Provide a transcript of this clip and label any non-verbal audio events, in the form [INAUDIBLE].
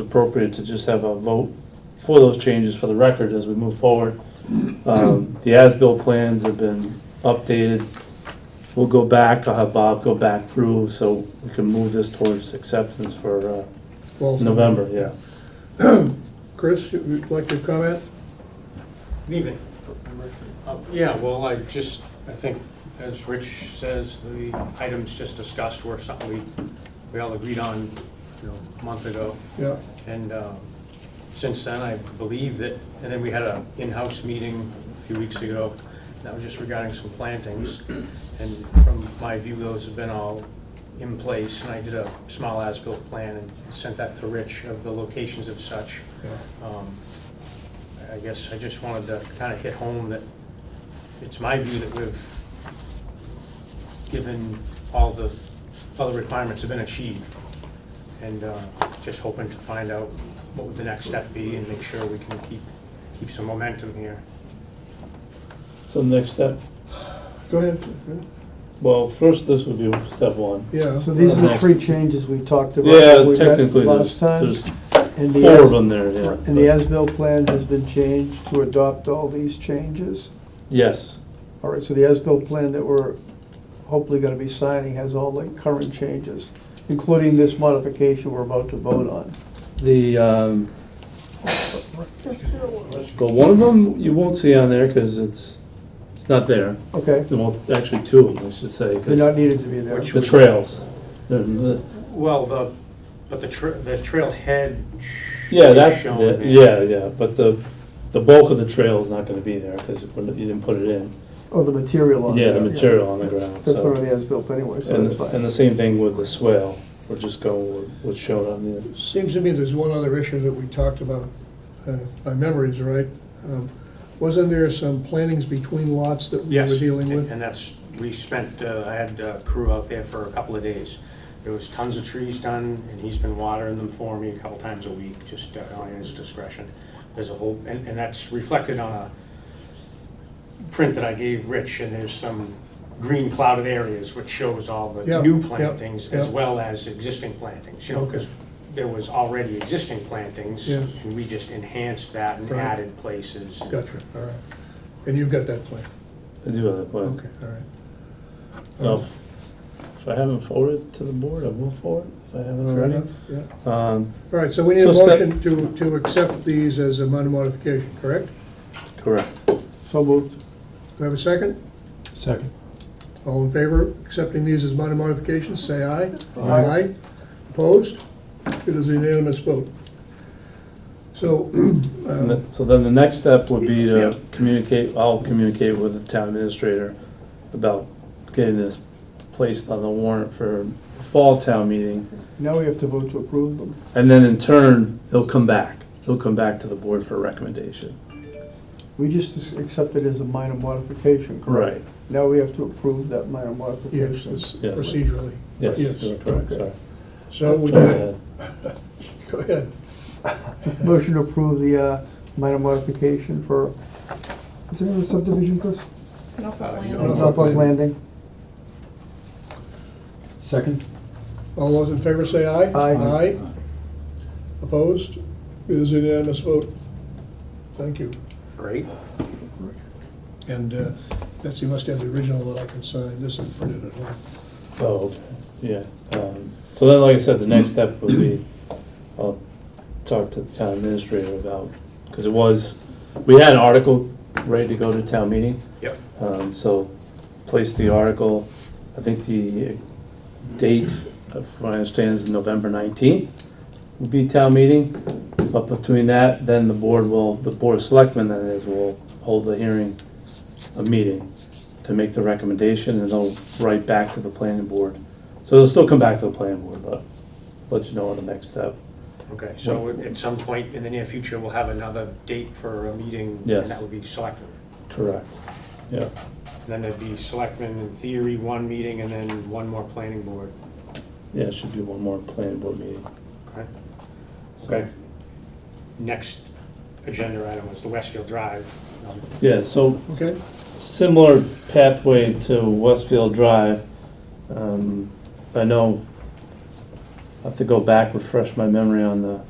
it's appropriate to just have a vote for those changes for the record as we move forward. Um, The as-built plans have been updated. We'll go back, I'll have Bob go back through so we can move this towards acceptance for uh, Falls on- November, yeah. Chris, you- you'd like to comment? Good evening. Uh, Yeah, well, I just, I think, as Rich says, the items just discussed were something we, we all agreed on, you know, a month ago. Yeah, And um, since then, I believe that, and then we had an in-house meeting a few weeks ago, that was just regarding some plantings. And from my view, those have been all in place, and I did a small as-built plan and sent that to Rich of the locations of such. yeah. Um, I guess I just wanted to kind of hit home that it's my view that we've given all the, all the requirements have been achieved. And uh, just hoping to find out what would the next step be and make sure we can keep, keep some momentum here. So next step, Go ahead. well, first this would be step one. Yeah. So these are the Next. three changes we talked about. that Yeah, we met technically, there's, Last time, there's and the four of as- them there, yeah. And the as-built plan has been changed to adopt all these changes. Yes, All right, so the as-built plan that we're hopefully gonna be signing has all the current changes, including this modification we're about to vote on. the, um, well, one of them you won't see on there because it's, it's not there. Okay, Well, actually, two of them, I should say, they're 'cause not needed to be there. Which- the trails. They're- the- Well, the, but the tra- the trailhead. Yeah, that's, shown the- there. yeah, yeah, but the, the bulk of the trail is not gonna be there, because you didn't put it in. Or Oh, the material Oh, on Yeah, there. the material on the ground, That's so. not on the as-built anyway, so And, that's fine. and the same thing with the swale, we're just going with what's shown on the, Seems to me there's one other issue that we talked about, uh, if my memory's right. Um, Wasn't there some plantings between lots that we were Yes. dealing and- with? And that's, we spent, uh, I had a crew out there for a couple of days. There was tons of trees done, and he's been watering them for me a couple times a week, just uh, on his discretion. There's a whole, and, and that's reflected on a print that I gave Rich, and there's some green clouded areas which shows all the Yeah, new yeah, plantings as yeah. well as existing plantings, you know, because there was already existing plantings, Yeah. and we just enhanced that and Right. added places. and- Gotcha, all right. And you've got that plan? I do have that plan. Okay, all right. Now, if if I haven't forwarded to the board, I will forward, if I haven't Fair already. enough, yeah. Um, All right, so we need a So step- motion to, to accept these as a minor modification, correct? correct. So moved. Do I have a second? Second. All in favor of accepting these as minor modifications, say aye. Aye. Opposed? It is a unanimous vote. So, [CLEARS THROAT] And um, the- So then the next step would be Yeah. to communicate, I'll communicate with the town administrator about getting this placed on the warrant for the fall town meeting. Now we have to vote to approve them. And then in turn, he'll come back. He'll come back to the board for a recommendation. We just accept it as a minor modification, correct? Now we have to approve that minor yes, modification. it's Yes. procedurally. Yes, Yes. you're correct, sorry. So we, Go ahead. go ahead. Motion to approve the uh, minor modification for, is there a subdivision, Chris? Norfolk no. Land. Norfolk Landing. Second? All those in favor say aye. Aye. Opposed? It is a unanimous vote. Thank you. Great. And uh, Betsy must have the original that I can sign. This is printed at home. Oh, okay, yeah. Um, So then, like I said, the next step would be, I'll talk to the town administrator about, because it was, we had an article ready to go to town meeting. Yep. Um, So place the article, I think the date, uh, from what I understand, is November 19th would be town meeting. But between that, then the board will, the board of selectmen that is, will hold the hearing, a meeting to make the recommendation and they'll write back to the planning board. So they'll still come back to the planning board, but let you know on the next step. Okay, so at some point in the near future, we'll have another date for a meeting? Yes. And that would be selectmen. Correct. Yeah, And Then there'd be selectmen in theory, one meeting, and then one more planning board, yeah, it should be one more planning board meeting. okay? So- Okay. Next agenda item was the Westfield Drive. Um, Yeah, so Okay? similar pathway to Westfield Drive. Um, I know, I have to go back, refresh my memory on the